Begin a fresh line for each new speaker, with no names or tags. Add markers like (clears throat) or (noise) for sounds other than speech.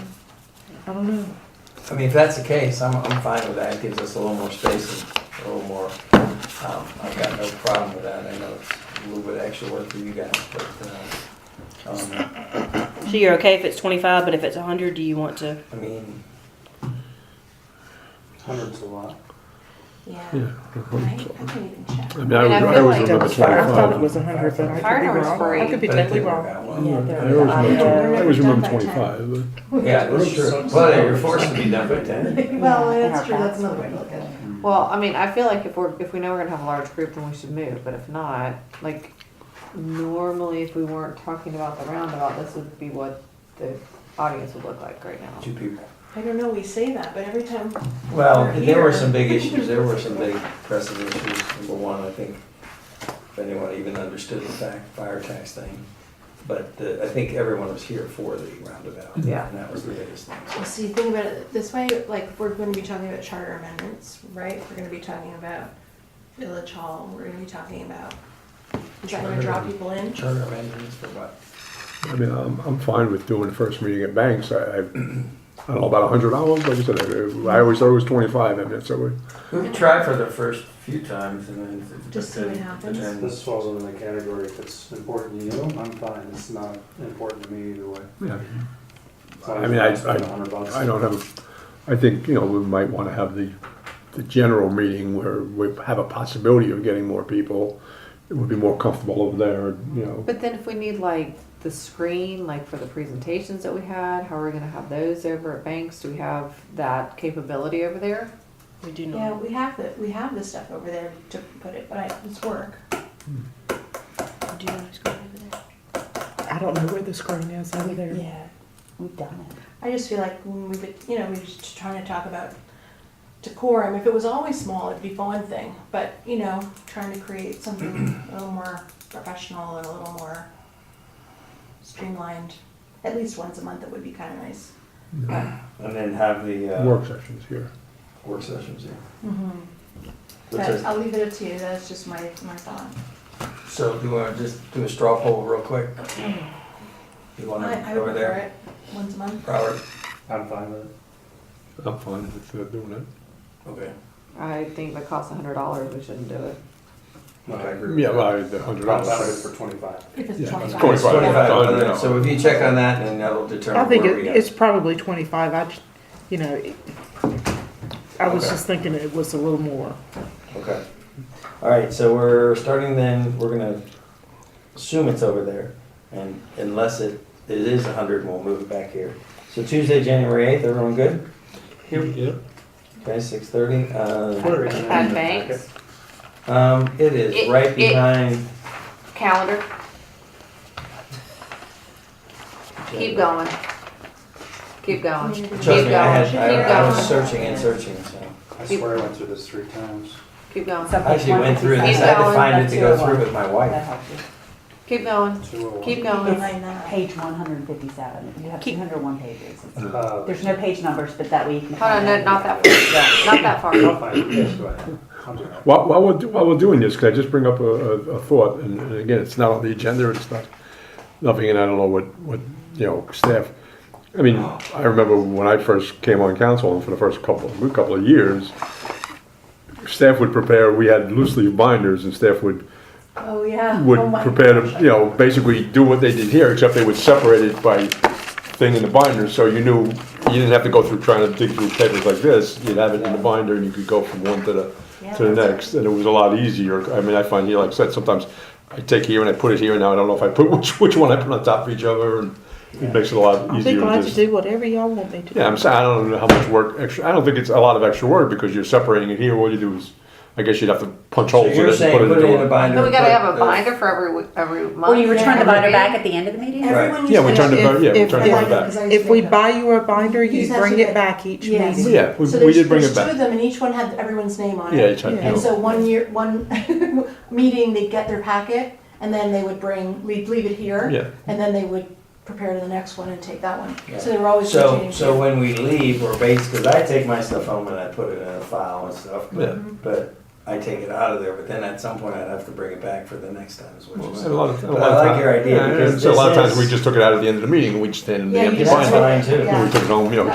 I don't know.
I mean, if that's the case, I'm, I'm fine with that. It gives us a little more space and a little more, um, I've got no problem with that. I know it's a little bit extra work for you guys, but, uh, um,
So you're okay if it's 25, but if it's 100, do you want to?
I mean,
Hundreds a lot.
Yeah.
Yeah.
I I couldn't even check.
I mean, I
And I
always, I
feel
always
like-
remember
I thought it
twenty-five.
was a hundred, but I could
Fire
be
was
wrong.
free.
I could be
but I
totally
think
wrong.
that
I
one.
always
Yeah,
remember,
they're-
I always
they're done
remember
by
twenty-five. but-
Yeah, that's true. Well, you're forced to be done by ten.
Well, that's true, that's another way to look at it.
Well, I mean, I feel like if we're, if we know we're gonna have a large group, then we should move, but if not, like, normally if we weren't talking about the roundabout, this would be what the audience would look like right now.
Two people.
I don't know, we say that, but every time,
Well, there were some big issues. There were some (laughs) big pressing issues. Number one, I think, if anyone even understood the fact, fire tax thing. But the, I think everyone was here for the roundabout.
Yeah.
And that was the biggest thing.
well, see, think about it this way, like, if we're gonna be talking about charter amendments, right? We're gonna be talking about village hall, we're gonna be talking about, is that gonna draw people in?
Charter amendments for what?
I mean, I'm, I'm fine with doing the first meeting at Banks. I, I, I don't know, about a hundred hours, like I said, I I always thought it was twenty-five, I mean, that's what
We've tried for the first few times and then. it-
Just see what happens.
This falls under the category, if it's important to you, I'm fine, it's not important to me either way.
we, yeah.
As long
I
as
mean, I-
it's less than 100 bucks.
I don't have, I think, you know, we might want to have the, the general meeting where we have a possibility of getting more people. It would be more comfortable over there, you know.
But then if we need like the screen, like for the presentations that we had, how are we gonna have those over at Banks? Do we have that capability over there?
We do
Yeah, we have the, we have the stuff over there to put it, but I, it's work.
We do know who's going over there.
I don't know where the screen is over there.
Yeah.
We've done it.
I just feel like when we, would- you know, we were just trying to talk about decorum. If it was always small, it'd be one thing, but you know, trying to create something
(clears throat)
a little more professional and a little more streamlined. At least once a month, it would be kind of nice.
And then have the, uh,
Work sessions here.
Work sessions, yeah.
But
That's it.
I'll leave it up to you. That's just my my thought.
So do you want to just do a straw poll real quick? You want
I, I
to,
would
over
prefer
there?
it once a month.
Robert?
I'm fine with it.
I'm fine with uh, doing it.
Okay.
I think that costs a hundred dollars, we shouldn't do it.
No, I agree. with
Yeah,
that.
well, I- the hundred
I'm fine
dollars.
with it for twenty-five.
If it's
Yeah, it's
twenty-five.
Twenty-five.
Twenty-five, okay. so if you check on that, then that'll
I
determine
think
where
it,
we
it's
are.
probably twenty-five, I, just- you know, it- I was
Okay.
just thinking it was a little more.
Okay. All right, so we're starting then, we're gonna assume it's over there, and unless it, it is a hundred, we'll move it back here. So Tuesday, January eighth, everyone good?
Yep.
Okay, six thirty, uh,
Where is it? At
Banks,
um, it is
It-
right
it-
behind.
calendar, going, keep going,
Community.
Trust me, I
Keep
had, I- I was
going.
searching and searching, so.
I swear I went through this three times.
keep going,
I actually went through this, I had to find it to go through with my wife.
keep going,
Two oh one.
Line that.
Page one hundred and fifty-seven, you have two hundred and one pages.
Uh,
There's no page numbers, but that way you can.
Hold on, no, not that
that.
not that far.
I'll find it. Yes, go ahead. I'll do that.
While, while we're, do- while we're doing this, could I just bring up a, a, a thought? And, and again, it's not on the agenda, it's not, nothing, and I don't know what, what, you know, staff. I mean, I remember when I first came on council and for the first couple, couple of years, staff would prepare, we had loose leaf binders and staff would,
Oh yeah.
would
Oh, my
prepare to,
gosh.
you know, basically do what they did here, except they would separate it by thing in the binder, so you knew, you didn't have to go through trying to dig through papers like this, you'd have it in the binder and you could go from one to the,
Yeah,
to the
that's
next, and it was a lot easier, I mean, I find here, like I said, sometimes I take here and I put it here, and now I don't know if I put, (laughs) which, which one I put on top of each other, and it makes it a lot
I'll be
easier
glad
to
to
just.
do whatever y'all want me to.
Yeah, I'm saying, I don't know how much work, extra, I don't think it's a lot of extra work, because you're separating it here, all you do is, I guess you'd have to punch
So
holes in it
you're
and
saying
put it
put it in a
into. a-
binder.
But we gotta
put
have a
the-
binder for every, w- every month.
Will you return the binder
Every
back
meeting?
at the end of the meeting?
Everyone
Yeah, we
used to-
turned it,
If-
back- yeah, we
if-
turned it
if-
back.
If we buy you a binder, you
Use that
bring
to
it
get-
back each
Yes.
meeting.
Yeah, we,
So
we
there's-
did bring
there's
it back.
two of them, and each one had everyone's name on it.
Yeah, each had,
Yeah.
you
And
know,
so one year, one (laughs) meeting, they'd get their packet, and then they would bring, we'd leave it here,
yeah.
and then they would prepare to the next one and take that one. So
Yeah.
they were always
So,
rotating.
so when we leave, we're based, because I take my stuff home and I put it in a file and stuff,
Yeah.
but, but I take it out of there, but then at some point I'd have to bring it back for the next time, is what
Well,
you're
A
saying.
lot of, a
But
lot of
I like
time-
your idea
yeah,
because
so a lot of
this
times we
is-
just took it out at the end of the meeting and we just stand in the
Yeah, you
empty
just-
That's
binder.
fine too.
Yeah.
We took it home, you know,